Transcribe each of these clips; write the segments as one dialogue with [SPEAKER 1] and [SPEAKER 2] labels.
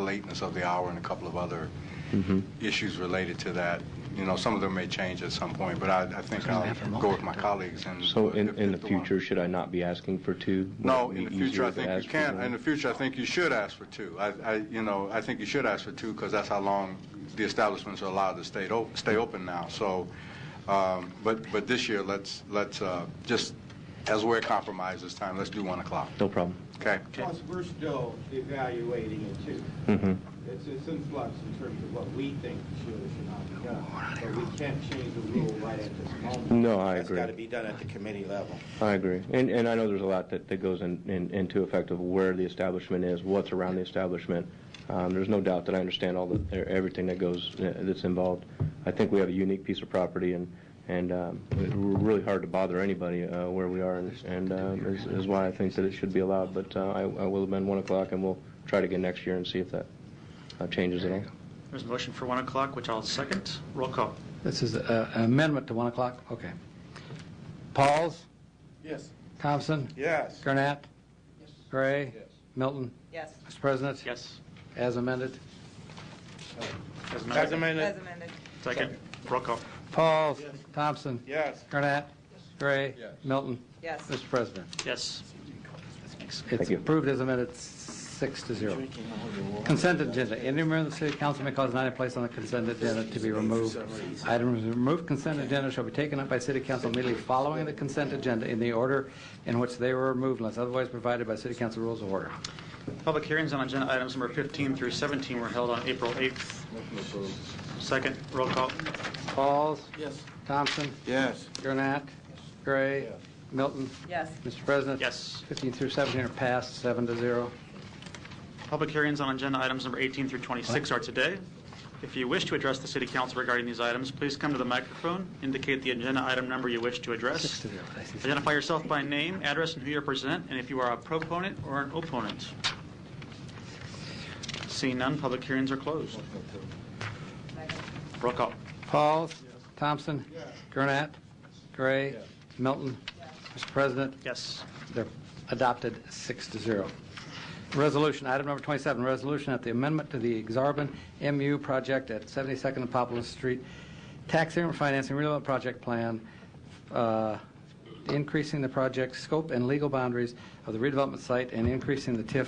[SPEAKER 1] lateness of the hour and a couple of other
[SPEAKER 2] Mm-hmm.
[SPEAKER 1] issues related to that. You know, some of them may change at some point, but I, I think I'll go with my colleagues and.
[SPEAKER 2] So in,
[SPEAKER 1] if-
[SPEAKER 2] in the
[SPEAKER 1] if one-
[SPEAKER 2] future, should I not be asking for two? Would
[SPEAKER 1] No,
[SPEAKER 2] it
[SPEAKER 1] in the
[SPEAKER 2] be
[SPEAKER 1] future,
[SPEAKER 2] easier
[SPEAKER 1] I
[SPEAKER 2] to
[SPEAKER 1] think
[SPEAKER 2] ask
[SPEAKER 1] you
[SPEAKER 2] for
[SPEAKER 1] can.
[SPEAKER 2] one?
[SPEAKER 1] In the future, I think you should ask for two. I, I, you know, I think you should ask for two because that's how long the establishments are allowed to stay, op- stay open now. So, um, but, but this year, let's, let's, uh, just as we're compromised this time, let's do one o'clock.
[SPEAKER 2] No problem.
[SPEAKER 1] Okay?
[SPEAKER 3] Plus, we're still evaluating it too.
[SPEAKER 2] Mm-hmm.
[SPEAKER 3] It's, it's in flux in terms of what we think should or should not be done. But we can't change the rule right at this moment.
[SPEAKER 2] No, I
[SPEAKER 3] That's
[SPEAKER 2] agree.
[SPEAKER 3] got to be done at the committee level.
[SPEAKER 2] I agree. And, and I know there's a lot that, that goes in, in, into effect of where the establishment is, what's around the establishment. Um, there's no doubt that I understand all the, e- everything that goes, uh, that's involved. I think we have a unique piece of property and, and, um, it's really hard to bother anybody, uh, where we are and, and, um, is, is why I think that it should be allowed. But, uh, I, I will amend one o'clock and we'll try it again next year and see if that, uh, changes at all.
[SPEAKER 4] There's a motion for 1 o'clock, which I'll second. Roll call.
[SPEAKER 5] This is uh, an amendment to 1 o'clock? Okay. Pauls?
[SPEAKER 3] Yes.
[SPEAKER 5] Thompson?
[SPEAKER 3] Yes.
[SPEAKER 5] Gurnett? Gray?
[SPEAKER 3] Yes.
[SPEAKER 5] Milton?
[SPEAKER 6] Yes,
[SPEAKER 5] Mr. President?
[SPEAKER 4] Yes.
[SPEAKER 5] As amended.
[SPEAKER 4] As
[SPEAKER 3] As
[SPEAKER 4] amended.
[SPEAKER 6] as
[SPEAKER 3] amended.
[SPEAKER 6] amended.
[SPEAKER 4] Second. Roll call.
[SPEAKER 5] Pauls? Thompson?
[SPEAKER 3] Yes.
[SPEAKER 5] Gurnett? Gray?
[SPEAKER 1] Yes.
[SPEAKER 5] Milton?
[SPEAKER 6] Yes.
[SPEAKER 5] Mr. President?
[SPEAKER 4] Yes.
[SPEAKER 5] It's
[SPEAKER 2] you.
[SPEAKER 5] approved as amended, six to zero. Consent agenda. Any member of the city council may cause an item placed on the consent agenda to be removed. Items removed consent agenda shall be taken up by city council immediately following the consent agenda in the order in which they were removed unless otherwise provided by city council rules of order.
[SPEAKER 4] Public hearings on agenda items number 15 through 17 were held on April 8th. Second. Roll call.
[SPEAKER 5] Pauls? Yes. Thompson?
[SPEAKER 3] Yes.
[SPEAKER 5] Gurnett? Gray? Milton?
[SPEAKER 6] Yes,
[SPEAKER 5] Mr. President?
[SPEAKER 4] Yes.
[SPEAKER 5] 15 through 17 are passed, seven to zero.
[SPEAKER 4] Public hearings on agenda items number 18 through 26 are today. If you wish to address the city council regarding these items, please come to the microphone, indicate the agenda item number you wish to
[SPEAKER 5] Six
[SPEAKER 4] address,
[SPEAKER 5] to zero. I see.
[SPEAKER 4] identify yourself by name, address, and who you represent, and if you are a proponent or an opponent. Seeing none, public hearings are closed. Roll call.
[SPEAKER 5] Pauls? Thompson? Gurnett? Gray? Milton? Mr. President?
[SPEAKER 4] Yes.
[SPEAKER 5] They're adopted six to zero. Resolution, item number 27, resolution at the amendment to the Exarban MU project at 72nd and Poplar Street, tax increment financing redevelopment project plan, uh, increasing the project scope and legal boundaries of the redevelopment site and increasing the TIF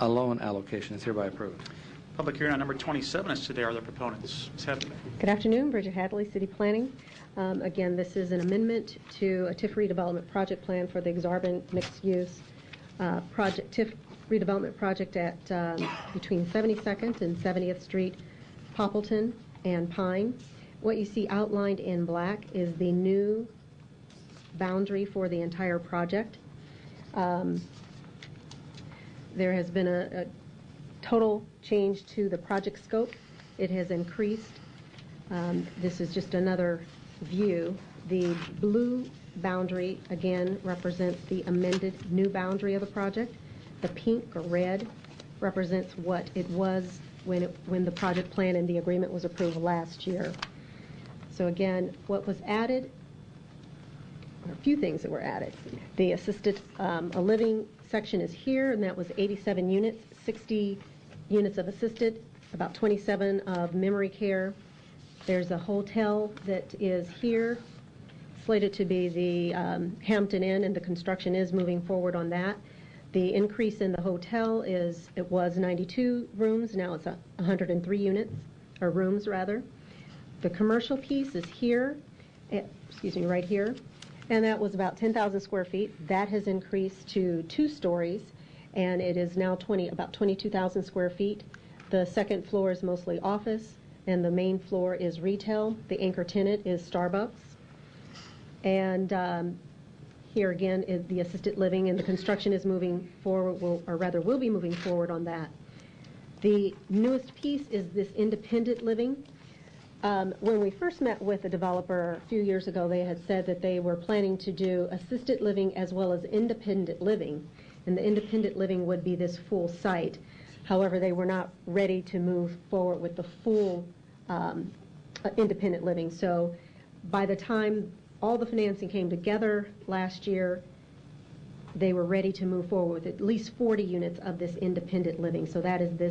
[SPEAKER 5] uh, loan allocation is hereby approved.
[SPEAKER 4] Public hearing on number 27 is today. Are there proponents? Ms. Hadley.
[SPEAKER 7] Good afternoon, Bridget Hadley, City Planning. Um, Again, this is an amendment to a TIF redevelopment project plan for the Exarban mixed-use uh, project, TIF redevelopment project at um, between 72nd and 70th Street, Poppleton, and Pine. What you see outlined in black is the new boundary for the entire project. Um, There has been a a total change to the project scope. It has increased. Um, This is just another view. The blue boundary, again, represents the amended new boundary of the project. The pink or red represents what it was when, it- when the project plan and the agreement was approved last year. So again, what was added or a few things that were added. The assisted um, a living section is here, and that was 87 units, 60 units of assisted, about 27 of memory care. There's a hotel that is here, slated to be the um, Hampton Inn, and the construction is moving forward on that. The increase in the hotel is, it was 92 rooms, now it's a 103 units, or rooms, rather. The commercial piece is here, eh, excuse me, right here, and that was about 10,000 square feet. That has increased to two stories, and it is now 20, about 22,000 square feet. The second floor is mostly office, and the main floor is retail. The anchor tenant is Starbucks. And um, here again is the assisted living, and the construction is moving forward, will- or rather will be moving forward on that. The newest piece is this independent living. Um, When we first met with the developer a few years ago, they had said that they were planning to do assisted living as well as independent living, and the independent living would be this full site. However, they were not ready to move forward with the full um, uh, independent living. So by the time all the financing came together last year, they were ready to move forward with at least 40 units of this independent living. So that is this